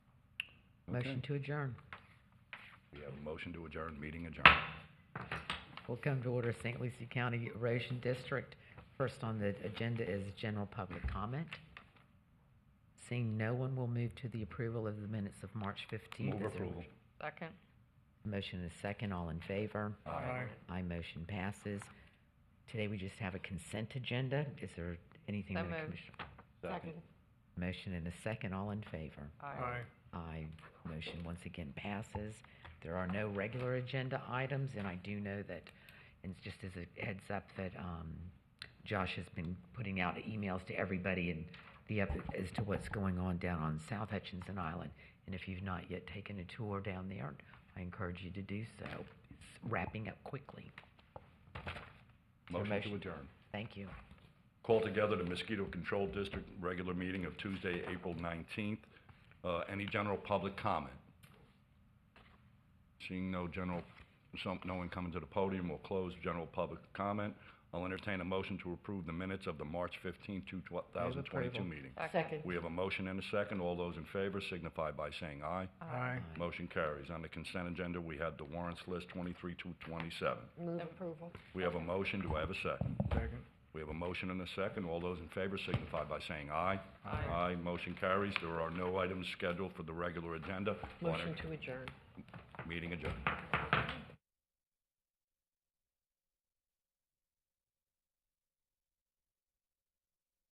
Motion to adjourn. We have a motion to adjourn, meeting adjourned. We'll come to order, St. Lucie County Erosion District. First on the agenda is general public comment. Seeing no one, we'll move to the approval of the minutes of March 15th. Move Is there a approval. Second. Motion is second, all in favor? Aye. Aye, motion passes. Today, we just have a consent agenda. Is there anything? So that a moved. commissioner- Second. Motion and a second, all in favor? Aye. Motion once again passes. There are no regular agenda items, and I do know that, and it's just as a heads up, that um, Josh has been putting out emails to everybody and the, up- as to what's going on down on South Hutchinson Island. And if you've not yet taken a tour down there, I encourage you to do so. It's wrapping up quickly. So Motion to motion- adjourn. Thank you. Call together the Mosquito Control District regular meeting of Tuesday, April 19th. Uh, Any general public comment? Seeing no general, some, no one coming to the podium, we'll close general public comment. I'll entertain a motion to approve the minutes of the March 15th, 2022 approval. meeting. Second. We have a motion and a second. All those in favor signify by saying aye. Aye. Motion carries. On the consent agenda, we have the warrants list 23 to 27. Move approval. We have a motion. Do I have a second? Second. We have a motion and a second. All those in favor signify by saying aye. Aye. Motion carries. There are no items scheduled for the regular agenda. Motion to adjourn. Meeting adjourned.